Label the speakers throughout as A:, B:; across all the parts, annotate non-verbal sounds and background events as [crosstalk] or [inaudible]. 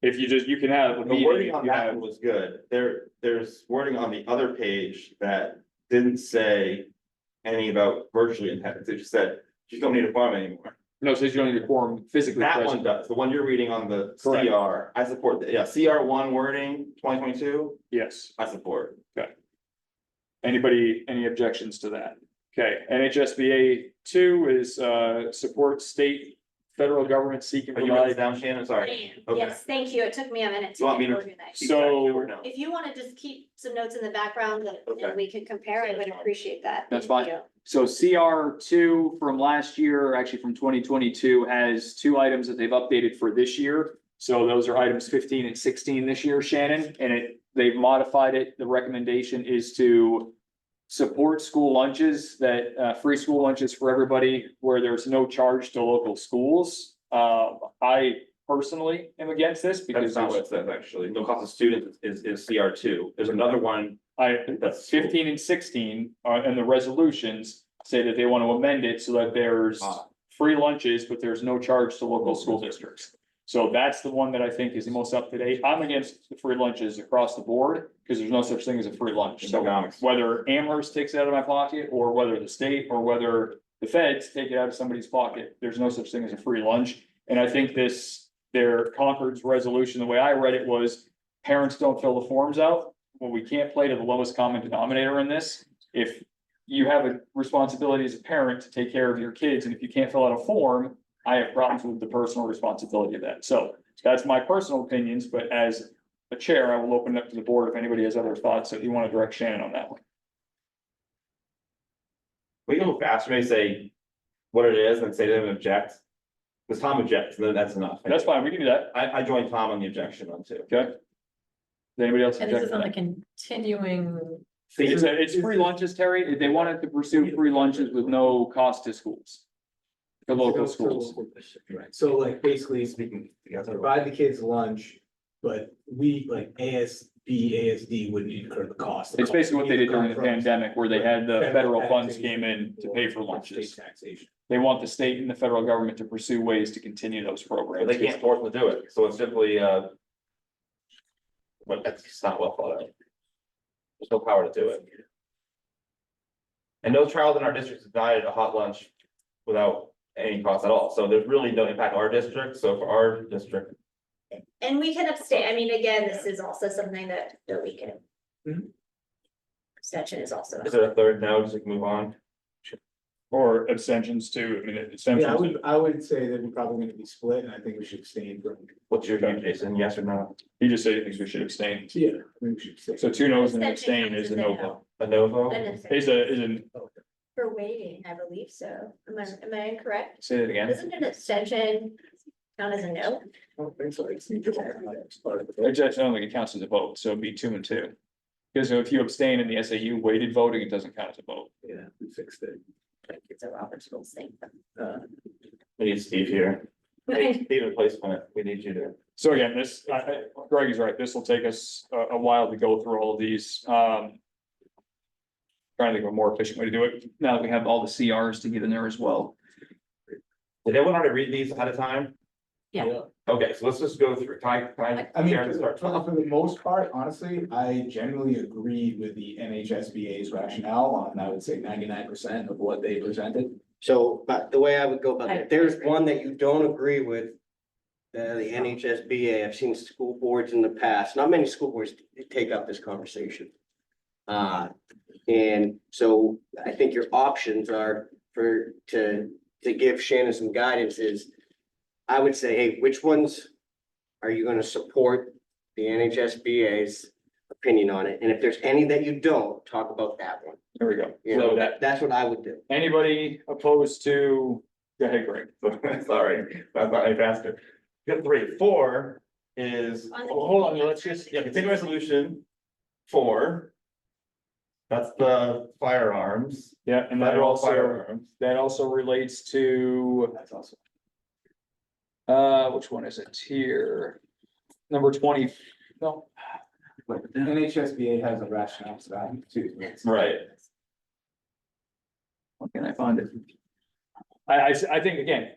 A: If you just, you can have a
B: The
A: meeting,
B: wording
A: if
B: on
A: you
B: that
A: have,
B: one was good. There, there's wording on the other page that didn't say. Any about virtually intense, it just said, you don't need a farm anymore.
A: no, it says you don't need a quorum physically
B: That one
A: present.
B: does, the one you're reading on the
A: Correct.
B: CR, I support that, yeah, CR one wording, twenty twenty-two,
A: Yes.
B: I support.
A: Anybody, any objections to that? Okay, NHSBA two is uh support state, federal government seeking
B: Are you writing this
A: provide.
B: down, Shannon? Sorry.
C: Diane,
B: Okay.
C: Yes, thank you. It took me a minute
B: You
C: to
B: want me
C: get
B: to-
C: organized.
A: So-
C: If you want to just keep some notes in the background that that
B: Okay.
C: we could compare, I would appreciate that.
A: That's
C: Thank
A: fine.
C: you.
A: So CR two from last year, actually from twenty twenty-two, has two items that they've updated for this year. So those are items fifteen and sixteen this year, Shannon, and it, they've modified it. The recommendation is to support school lunches that, uh, free school lunches for everybody where there's no charge to local schools. Uh, I personally am against this because
B: That's not what it says, actually. No cost of students is, is CR two. There's another one
A: I,
B: that's.
A: fifteen and sixteen, uh, and the resolutions say that they want to amend it so that there's
B: Ah.
A: free lunches, but there's no charge to local school districts. So that's the one that I think is the most up to date. I'm against the free lunches across the board, because there's no such thing as a free lunch. So
B: Economics.
A: whether Amherst takes it out of my pocket, or whether the state, or whether the feds take it out of somebody's pocket, there's no such thing as a free lunch. And I think this, their Concord's resolution, the way I read it was, parents don't fill the forms out, well, we can't play to the lowest common denominator in this. If you have a responsibility as a parent to take care of your kids, and if you can't fill out a form, I have problems with the personal responsibility of that. So that's my personal opinions, but as a chair, I will open it up to the board if anybody has other thoughts that you want to direct Shannon on that one.
B: We can go faster, maybe say what it is and say they didn't object. Because Tom objects, then that's enough.
A: That's fine, we can do that.
B: I, I joined Tom on the objection one too.
A: Does Anybody else?
D: And this is
A: object to
D: on
A: that?
D: the continuing,
B: See,
A: It's, a- it's free lunches, Terry. They wanted to pursue free lunches with no cost to schools. To local schools.
E: Right, so like basically
B: speaking together.
E: provide the kids lunch, but we like ASB, ASD wouldn't incur the cost.
A: It's basically what they did during the
E: Come from
A: pandemic where they had the federal funds
E: taxation
A: came in to pay for
E: or
A: lunches.
E: state Taxation.
A: They want the state and the federal government to pursue ways to continue those
B: But
A: programs.
B: they can't force them to do it, so it's simply, uh. But that's just not well thought out. There's no power to do it. And no child in our district is denied a hot lunch without any cost at all, so there's really no impact on our district, so for our district.
C: And we can abstain. I mean, again, this is also something that that we can.
E: Mhm.
C: Abstention is also.
B: Is there a third now, just like move on?
A: Or abstentions too. I mean,
E: Yeah, I
A: abstentions.
E: would, I would say that we're probably gonna be split and I think we should abstain from.
B: What's your view, Jason, yes or no?
A: You just said he thinks we should abstain.
E: Yeah. I think we should abstain.
A: So two noes and an
C: Abstention
A: abstain is a
C: counts
A: no
C: as a no.
A: vote.
B: A no vote?
C: And it's-
A: Is a, is an,
C: For waiting, I believe so. Am I, am I incorrect?
A: say that again.
C: Isn't an abstention count as a no?
E: Oh, I don't think so. It's part of the vote.
A: Actually, I don't think it counts as a vote, so it'd be two and two. Because if you abstain in the SAU weighted voting, it doesn't count as a vote.
E: Yeah, we fixed it.
C: It's a Robert's rules thing.
E: Uh,
B: We need Steve here, Steve in place when it- we need you to.
A: So again, this, I, I- Greg is right, this will take us a, a while to go through all of these, um. Trying to think of a more efficient way to do it, now that we have all the CRs to get in there as well.
B: Did everyone already read these ahead of time?
D: Yeah.
B: Okay, so let's just go through, can I, can I?
E: I mean,
B: Karen,
E: for
B: start?
E: for- for the most part, honestly, I generally agreed with the NHSBA's rationale on, I would say ninety-nine percent of what they presented.
F: So, but the way I would go about
D: I-
F: it, if there's one that you don't agree with. Uh, the NHSBA, I've seen school boards in the past, not many school boards take up this conversation. Uh, and so I think your options are for, to, to give Shannon some guidance is. I would say, hey, which ones are you gonna support the NHSBA's opinion on it? And if there's any that you don't, talk about that one.
A: There we go.
F: You
B: So-
F: know, that, that's what I would do.
A: Anybody opposed to, go ahead, Greg.
B: [laughs] Sorry, I thought I faster. Good three, four is,
C: On the-
B: oh, hold on, let's just, yeah, continue resolution. Four. That's the firearms,
A: Yeah, and that
B: federal
A: also,
B: firearms.
A: that also relates to,
E: That's awesome.
A: uh, which one is it here? Number twenty, no,
E: But the NHSBA has a rationale for that too.
B: Right,
A: Where can I find it? I, I, s- I think again,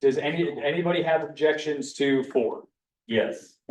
A: does any, anybody have objections to four?
B: yes.